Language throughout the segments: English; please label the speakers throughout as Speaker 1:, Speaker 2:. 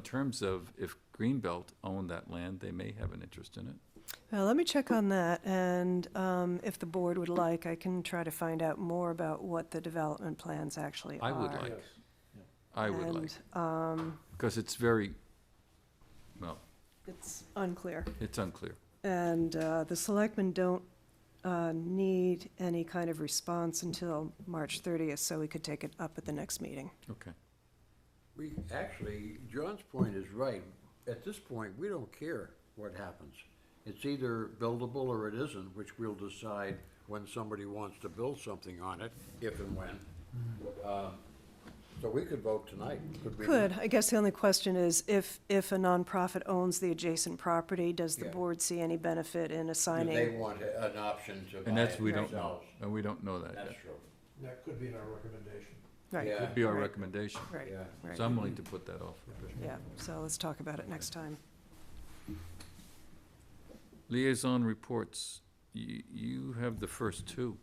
Speaker 1: in terms of if Greenbelt owned that land, they may have an interest in it.
Speaker 2: Well, Uh, let me check on that, and um, if the board would like, I can try to find out more about what the development plans actually
Speaker 1: I
Speaker 2: are.
Speaker 1: would like, I would like,
Speaker 2: And um,
Speaker 1: because it's very, well,
Speaker 2: it's unclear.
Speaker 1: it's unclear.
Speaker 2: And uh, the selectmen don't uh, need any kind of response until March 30th, so we could take it up at the next meeting.
Speaker 1: Okay.
Speaker 3: We, actually, John's point is right. At this point, we don't care what happens. It's either buildable or it isn't, which we'll decide when somebody wants to build something on it, if and when.
Speaker 1: Mm-hmm.
Speaker 3: Um, So we could vote tonight, could we? not?
Speaker 2: Could, I guess the only question is, if, if a nonprofit owns the adjacent property, does the
Speaker 3: Yeah.
Speaker 2: board see any benefit in
Speaker 3: Do they
Speaker 2: assigning?
Speaker 3: want a- an option to buy
Speaker 1: And that's,
Speaker 3: it
Speaker 1: we don't know,
Speaker 3: themselves?
Speaker 1: and we don't know that yet.
Speaker 3: That's true.
Speaker 4: That could be in our recommendation.
Speaker 2: Right,
Speaker 3: Yeah.
Speaker 1: Be our
Speaker 2: Right.
Speaker 1: recommendation.
Speaker 2: Right,
Speaker 3: Yeah.
Speaker 2: right,
Speaker 1: So I'm willing to put that off for a bit.
Speaker 2: yeah, so let's talk about it next time.
Speaker 1: Liaison reports, you, you have the first two,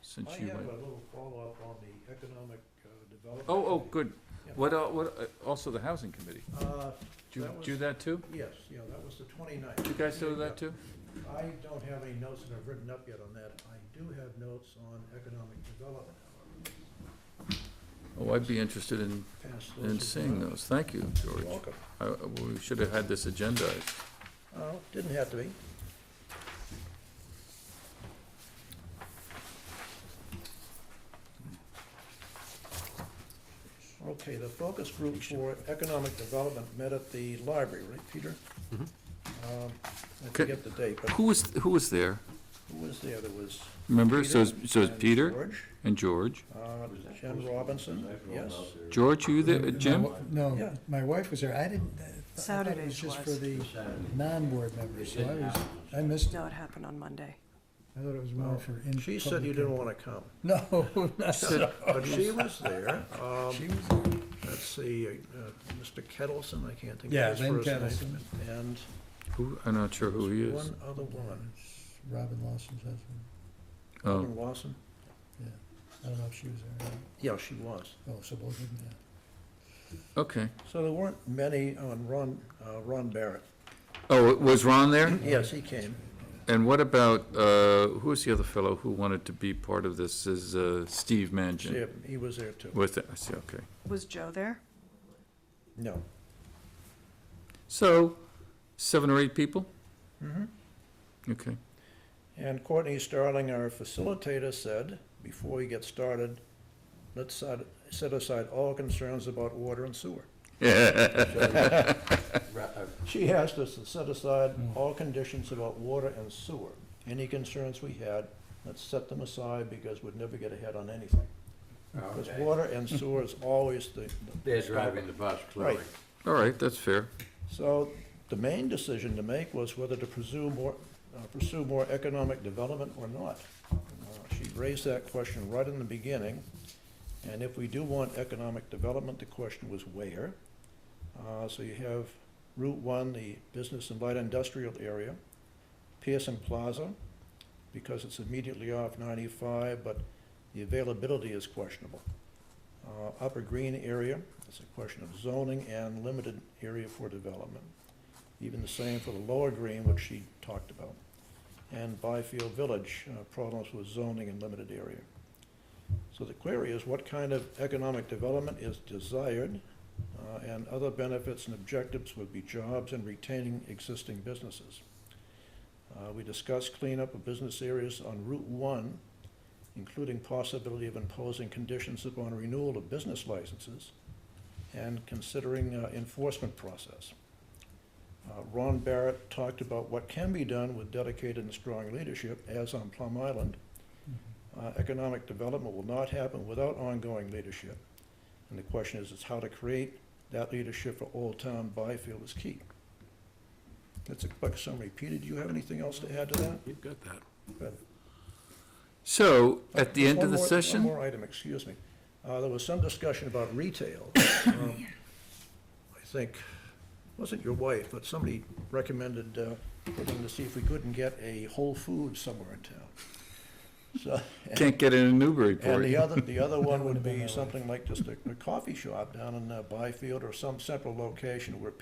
Speaker 1: since
Speaker 4: I
Speaker 1: you
Speaker 4: have
Speaker 1: went.
Speaker 4: a little follow-up on the economic uh, development.
Speaker 1: Oh, oh, good.
Speaker 4: Yeah.
Speaker 1: What, uh, what, uh, also the housing committee.
Speaker 4: Uh,
Speaker 1: Do, you
Speaker 4: That was-
Speaker 1: do that too?
Speaker 4: yes, yeah, that was the 29th.
Speaker 1: You guys do that too?
Speaker 4: I don't have any notes that I've written up yet on that. I do have notes on economic development, however.
Speaker 1: Oh, I'd be interested in,
Speaker 4: Pass those
Speaker 1: in
Speaker 4: as
Speaker 1: seeing
Speaker 4: well.
Speaker 1: those. Thank you, George.
Speaker 4: You're welcome.
Speaker 1: I- I- We should have had this agendized.
Speaker 4: Oh, didn't have to be. Okay, the focus group for economic development met at the library, right, Peter?
Speaker 1: Mm-hmm.
Speaker 4: Um, I forget the date, but
Speaker 1: Who was, who was there?
Speaker 4: who was there? There was.
Speaker 1: Remember, so
Speaker 4: Peter
Speaker 1: it's, so it's
Speaker 4: and
Speaker 1: Peter
Speaker 4: George,
Speaker 1: and George.
Speaker 4: uh, Jen Robinson, yes.
Speaker 1: George, you there, uh, Jim?
Speaker 4: Yeah.
Speaker 5: No, my wife was there. I didn't, I thought it
Speaker 2: Saturdays
Speaker 5: was just for
Speaker 2: was.
Speaker 5: the non-board members, so I was, I missed it.
Speaker 2: No, it happened on Monday.
Speaker 5: I thought it was more Oh, for in.
Speaker 4: She said you
Speaker 5: public
Speaker 4: didn't want to come,
Speaker 5: No, not so.
Speaker 4: but she was there. Um,
Speaker 5: She was-
Speaker 4: Let's see, uh, Mr. Kettleson, I can't think
Speaker 5: Yeah,
Speaker 4: of his
Speaker 5: Lynn
Speaker 4: first name.
Speaker 5: Kettleson.
Speaker 4: And
Speaker 1: Who, I'm not sure who he is.
Speaker 4: one other woman,
Speaker 5: Robin Lawson's husband,
Speaker 1: Oh,
Speaker 4: Ellen Lawson.
Speaker 5: yeah. I don't know if she was there.
Speaker 4: Yeah, she was.
Speaker 5: Oh, so both of them, yeah.
Speaker 1: okay.
Speaker 4: So there weren't many on Ron, uh, Ron Barrett.
Speaker 1: Oh, was Ron there?
Speaker 4: Yes, he came.
Speaker 1: And what about, uh, who was the other fellow who wanted to be part of this, is uh, Steve
Speaker 4: See,
Speaker 1: Mangin?
Speaker 4: He was there too.
Speaker 1: Was that, I see, okay.
Speaker 2: Was Joe there?
Speaker 4: No.
Speaker 1: So, seven or eight people?
Speaker 4: Mm-hmm.
Speaker 1: Okay.
Speaker 4: And Courtney Starling, our facilitator, said, before we get started, let's set set aside all concerns about water and sewer.
Speaker 3: Ra- uh,
Speaker 4: She asked us to set aside all conditions about water and sewer. Any concerns we had, let's set them aside because we'd never get ahead on anything. Because
Speaker 3: okay.
Speaker 4: water and sewer is always the.
Speaker 3: They're driving the bus, clearly.
Speaker 4: Right.
Speaker 1: All right, that's fair.
Speaker 4: So the main decision to make was whether to pursue more, uh, pursue more economic development or not. Uh, She raised that question right in the beginning, and if we do want economic development, the question was where? Uh, So you have Route One, the business and light industrial area, Pearson Plaza, because it's immediately off ninety-five, but the availability is questionable. Uh, Upper Green area, it's a question of zoning and limited area for development. Even the same for the Lower Green, which she talked about. And Byfield Village, uh, problems with zoning and limited area. So the query is what kind of economic development is desired? uh, And other benefits and objectives would be jobs and retaining existing businesses. Uh, We discussed cleanup of business areas on Route One including possibility of imposing conditions upon renewal of business licenses and considering uh, enforcement process. Uh, Ron Barrett talked about what can be done with dedicated and strong leadership, as on Plum Island. Uh, Economic development will not happen without ongoing leadership. And the question is, is how to create that leadership for Old Town Byfield is key. That's a quick summary. Peter, do you have anything else to add to that?
Speaker 3: You've got that.
Speaker 4: Good.
Speaker 1: So, at the
Speaker 4: Just
Speaker 1: end
Speaker 4: one
Speaker 1: of the
Speaker 4: more- One
Speaker 1: session,
Speaker 4: more item, excuse me. Uh, There was some discussion about retail. Um, I think, wasn't your wife, but somebody recommended uh, looking to see if we couldn't get a Whole Foods somewhere in town. So,
Speaker 1: can't get in a
Speaker 4: and the
Speaker 1: Newburyport.
Speaker 4: other, the other one would
Speaker 5: would've been my
Speaker 4: be
Speaker 5: wife.
Speaker 4: something like just a a coffee shop down in uh, Byfield or some central location where